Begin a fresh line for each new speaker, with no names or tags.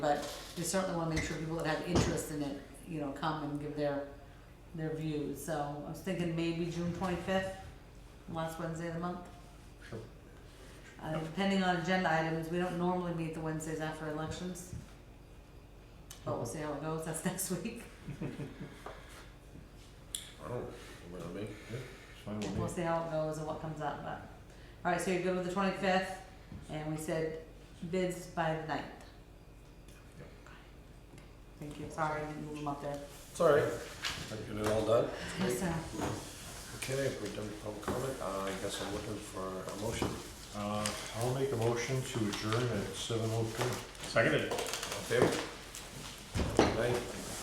but we certainly wanna make sure people that have interest in it, you know, come and give their, their views, so I was thinking maybe June twenty-fifth, last Wednesday of the month.
Sure.
Uh, depending on agenda items, we don't normally meet the Wednesdays after elections, but we'll see how it goes, that's next week,
I don't, know what I mean,
we'll see how it goes and what comes up, but. Alright, so you're good with the twenty-fifth, and we said bids by the ninth.
Yep.
Thank you, sorry, I didn't move them up there.
it's all right, I get it all done.
Yes, uh,
Okay, if we're done with public comment, uh, I guess I'm looking for a motion.
Uh, I'll make a motion to adjourn at seven oh two.
Seconded.
All in favor? Aye.